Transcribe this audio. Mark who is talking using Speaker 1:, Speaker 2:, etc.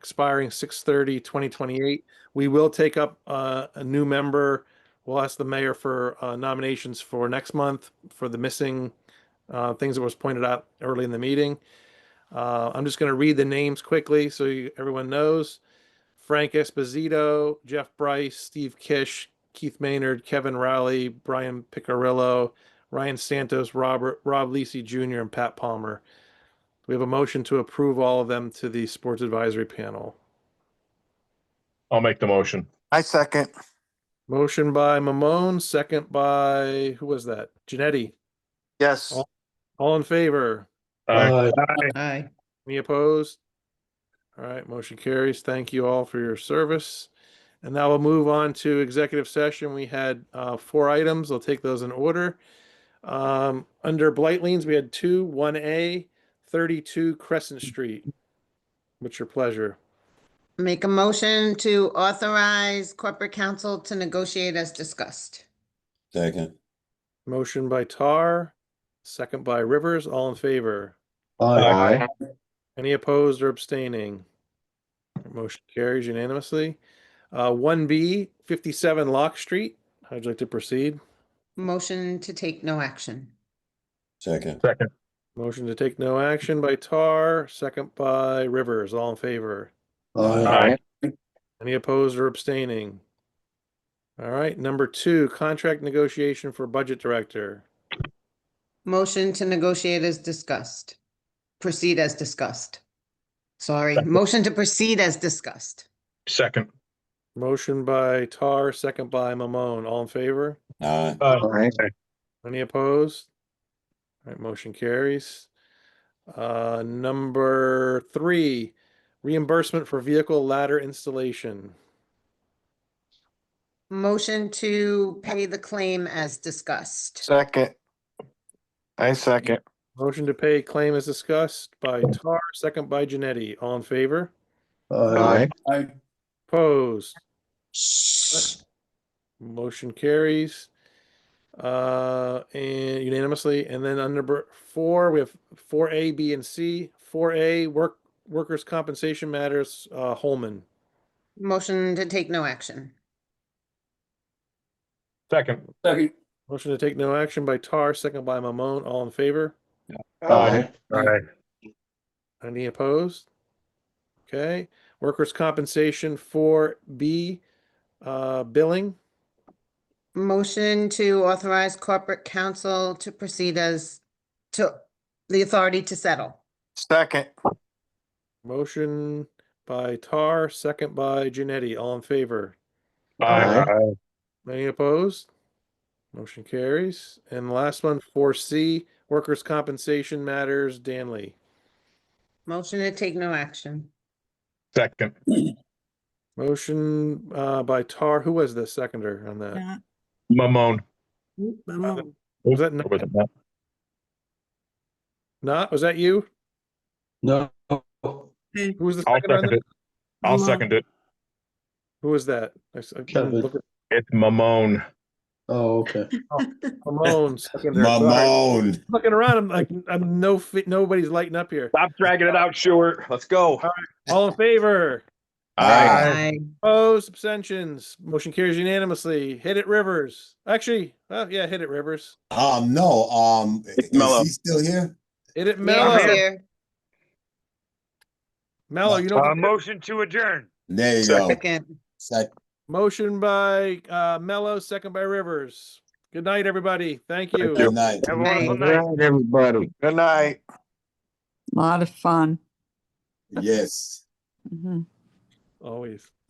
Speaker 1: expiring 2028. We will take up uh, a new member. We'll ask the mayor for uh, nominations for next month for the missing uh, things that was pointed out early in the meeting. Uh, I'm just going to read the names quickly so you, everyone knows. Frank Esposito, Jeff Bryce, Steve Kish, Keith Maynard, Kevin Rowley, Brian Picarillo, Ryan Santos, Robert Rob Lisi Jr., and Pat Palmer. We have a motion to approve all of them to the Sports Advisory Panel.
Speaker 2: I'll make the motion.
Speaker 3: I second.
Speaker 1: Motion by Mamone, second by who was that? Janetti.
Speaker 3: Yes,
Speaker 1: All in favor?
Speaker 2: Uh, Aye.
Speaker 4: Aye.
Speaker 1: Any opposed? All right, motion carries. Thank you all for your service. And now we'll move on to executive session. We had uh, four items. I'll take those in order. Um, Under blight liens, we had two, 1A, 32 Crescent Street. What's your pleasure?
Speaker 4: Make a motion to authorize corporate counsel to negotiate as discussed.
Speaker 5: Second.
Speaker 1: Motion by Tar, second by Rivers, all in favor.
Speaker 2: Aye.
Speaker 1: Any opposed or abstaining? Motion carries unanimously. Uh, One B, 57 Lock Street. How'd you like to proceed?
Speaker 4: Motion to take no action.
Speaker 5: Second.
Speaker 2: Second.
Speaker 1: Motion to take no action by Tar, second by Rivers, all in favor.
Speaker 2: Aye.
Speaker 1: Any opposed or abstaining? All right, number two, contract negotiation for budget director.
Speaker 4: Motion to negotiate as discussed. Proceed as discussed. Sorry, motion to proceed as discussed.
Speaker 2: Second.
Speaker 1: Motion by Tar, second by Mamone, all in favor?
Speaker 5: Aye.
Speaker 2: Aye.
Speaker 1: Any opposed? All right, motion carries. Uh, number three, reimbursement for vehicle ladder installation.
Speaker 4: Motion to pay the claim as discussed.
Speaker 3: second. I second.
Speaker 1: Motion to pay claim as discussed by Tar, second by Janetti. All in favor?
Speaker 3: Aye.
Speaker 1: Opposed? Motion carries. Uh, and unanimously, and then on number four, we have four A, B, and C. Four A, work, workers' compensation matters, uh, Holman.
Speaker 4: Motion to take no action.
Speaker 2: Second.
Speaker 1: Motion to take no action by Tar, second by Mamone. All in favor?
Speaker 2: Aye. Aye.
Speaker 1: Any opposed? Okay, workers' compensation four B, uh, billing.
Speaker 4: Motion to authorize corporate counsel to proceed as to the authority to settle.
Speaker 3: Second.
Speaker 1: Motion by Tar, second by Janetti. All in favor?
Speaker 2: Aye.
Speaker 1: Any opposed? Motion carries. And the last one, four C, workers' compensation matters, Danley.
Speaker 4: Motion to take no action.
Speaker 2: Second.
Speaker 1: Motion, uh, by Tar, who was the seconder on that?
Speaker 2: Mamone.
Speaker 1: Was that not, not, was that you?
Speaker 6: No.
Speaker 1: Who was the
Speaker 2: I'll
Speaker 1: seconder on
Speaker 2: second
Speaker 1: that?
Speaker 2: it. I'll second it.
Speaker 1: Who was that? I s- I couldn't
Speaker 6: Kevin.
Speaker 1: look at-
Speaker 2: It's Mamone.
Speaker 6: Oh, okay.
Speaker 1: Mamone, seconder, sorry.
Speaker 5: Mamone.
Speaker 1: Looking around, I'm like, I'm no, fi- nobody's lighting up here.
Speaker 2: Stop dragging it out, Stewart. Let's go.
Speaker 1: All in favor?
Speaker 5: Aye.
Speaker 4: Aye.
Speaker 1: Opposed, abstentions, motion carries unanimously. Hit it, Rivers. Actually, oh, yeah, hit it, Rivers.
Speaker 5: Um, no, um, is
Speaker 3: Mello.
Speaker 5: he still here?
Speaker 1: Hit it,
Speaker 4: Mayor
Speaker 1: Mello.
Speaker 4: here.
Speaker 1: Mello, you
Speaker 7: Uh,
Speaker 1: know,
Speaker 7: motion to adjourn.
Speaker 5: There you go.
Speaker 4: Second.
Speaker 5: Second.
Speaker 1: motion by, uh, Mello, second by Rivers. Good night, everybody. Thank you.
Speaker 5: Good night.
Speaker 7: Have a wonderful
Speaker 4: Night.
Speaker 7: night.
Speaker 3: everybody. Good night.
Speaker 8: Lot of fun.
Speaker 5: Yes.
Speaker 8: Mhm.
Speaker 1: Always.